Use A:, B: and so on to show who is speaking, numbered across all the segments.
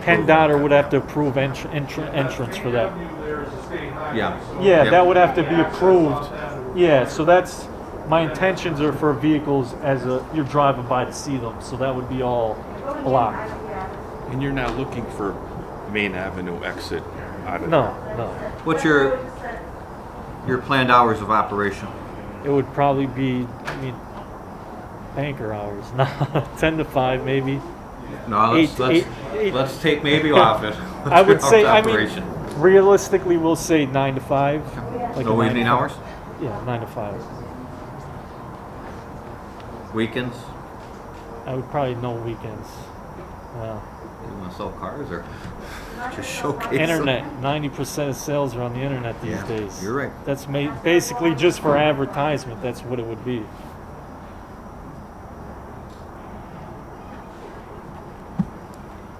A: Penn Dotter would have to approve entr- entr- entrance for that.
B: Yeah.
A: Yeah,
B: Yep.
A: that would have to be approved. Yeah, so that's, my intentions are for vehicles as a, you're driving by to see them, so that would be all blocked.
C: And you're now looking for Main Avenue exit out of
A: No,
C: there.
A: no.
B: What's your your planned hours of operation?
A: It would probably be, I mean, banker hours, no, ten to five maybe.
B: No, let's
A: Eight-
B: let's,
A: eight- eight-
B: let's take maybe off it.
A: I would
B: Off
A: say,
B: the
A: I
B: operation.
A: mean, realistically, we'll say nine to five. like a
B: no
A: nine to
B: evening
A: five.
B: hours,
A: Yeah, nine to five.
B: weekends.
A: I would probably no weekends. Wow.
B: You want to sell cars or just showcase them?
A: Internet. Ninety percent of sales are on the internet these
B: Yeah,
A: days.
B: you're right.
A: That's ma- basically just for advertisement. That's what it would be.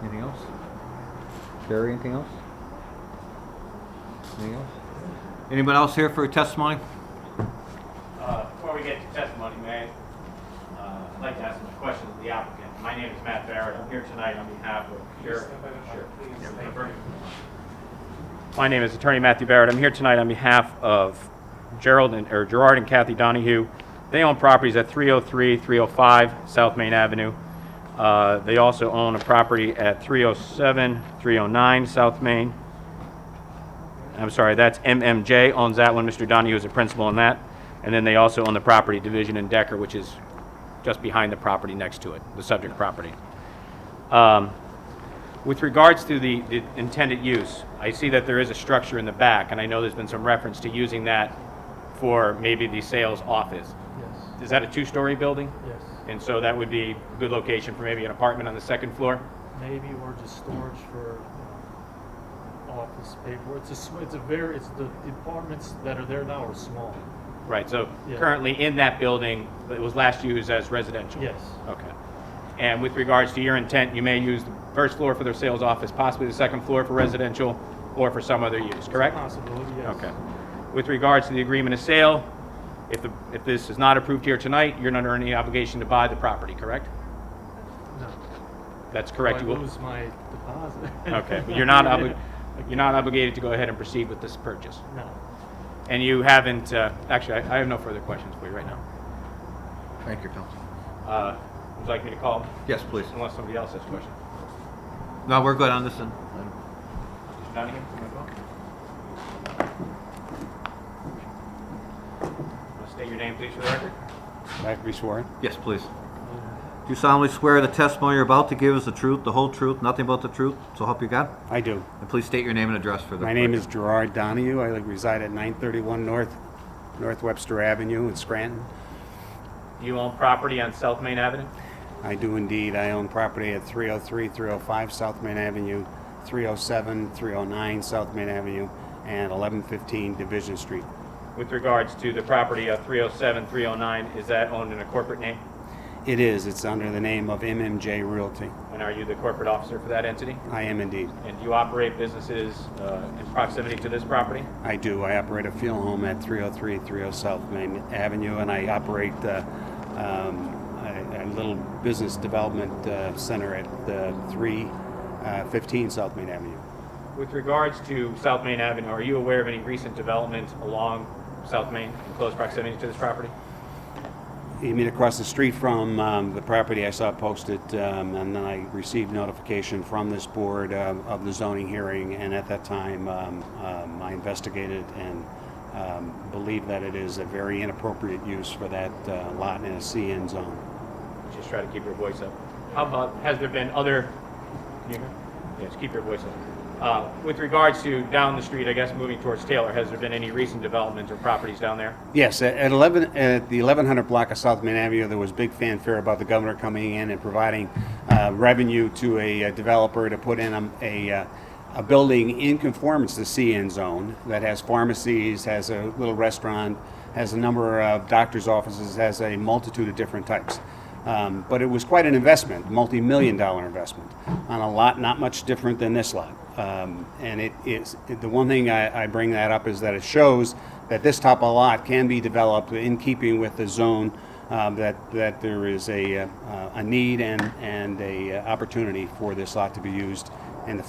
B: Anything else? Barry, anything else? Anything else? Anyone else here for testimony?
D: Uh, Before we get to testimony, may I, uh, I'd like to ask a question of the applicant. My name is Matt Barrett. I'm here tonight on behalf of Sheriff. My name is Attorney Matthew Barrett. I'm here tonight on behalf of Gerald and, or Gerard and Kathy Donahue. They own properties at 303, 305 South Main Avenue. Uh, They also own a property at 307, 309 South Main. I'm sorry, that's MMJ owns that one. Mr. Donahue is a principal on that. And then they also own the property division in Decker, which is just behind the property next to it, the subject property. Um, With regards to the the intended use, I see that there is a structure in the back, and I know there's been some reference to using that for maybe the sales office.
A: Yes.
D: Is that a two-story building?
A: Yes.
D: And so that would be a good location for maybe an apartment on the second floor?
A: Maybe or just storage for you know, office paper. It's a sm- it's a very it's the the apartments that are there now are small.
D: Right, so
A: Yeah.
D: currently in that building, it was last used as residential?
A: Yes.
D: Okay. And with regards to your intent, you may use the first floor for their sales office, possibly the second floor for residential or for some other use, correct?
A: Possibility. Yes.
D: Okay. With regards to the agreement of sale, if, the- if this is not approved here tonight, you're not under any obligation to buy the property, correct?
A: No.
D: That's correct.
A: I
D: You will-
A: lose my deposit.
D: Okay, but you're not obli, you're not obligated to go ahead and proceed with this purchase.
A: No.
D: And you haven't, uh, actually, I I have no further questions for you right now.
B: Thank you, counsel.
D: Uh, Would you like me to call,
B: Yes, please.
D: unless somebody else has questions?
B: No, we're good on this end.
D: Mr. Donahue, you wanna go? Wanna State your name, please, for the record.
E: I have to be sworn.
B: Yes, please. Do you solemnly swear the testimony you're about to give is the truth, the whole truth, nothing but the truth, so help you God?
E: I do.
B: And please state your name and address for the
E: My name is Gerard Donahue. I reside at 931 North, North Webster Avenue in Scranton.
D: Do you own property on South Main Avenue?
E: I do indeed. I own property at 303, 305 South Main Avenue, 307, 309 South Main Avenue, and 1115 Division Street.
D: With regards to the property of 307, 309, is that owned in a corporate name?
E: It is. It's under the name of MMJ Realty.
D: And are you the corporate officer for that entity?
E: I am indeed.
D: And do you operate businesses uh, in proximity to this property?
E: I do. I operate a fuel home at 303 30 South Main Avenue, and I operate uh, um, a, a little business development uh, center at uh, 315 South Main Avenue.
D: With regards to South Main Avenue, are you aware of any recent development along South Main in close proximity to this property?
E: You mean across the street from um, the property I saw posted, um, and then I received notification from this board uh, of the zoning hearing, and at that time, um, um, I investigated and um, believe that it is a very inappropriate use for that uh, lot in a CN zone.
D: Just try to keep your voice up. How about, has there been other, can you hear? Yeah, just keep your voice up. Uh, With regards to down the street, I guess, moving towards Taylor, has there been any recent developments or properties down there?
E: Yes, at at 11, at the 1100 block of South Main Avenue, there was big fanfare about the governor coming in and providing uh, revenue to a uh, developer to put in a- a, uh, a building in conformance to CN zone that has pharmacies, has a little restaurant, has a number of doctor's offices, has a multitude of different types. Um, But it was quite an investment, multi-million dollar investment, on a lot not much different than this lot. Um, And it is, the one thing I, I bring that up is that it shows that this type of lot can be developed in keeping with the zone, um, that, that there is a, uh, a need and, and a uh, opportunity for this lot to be used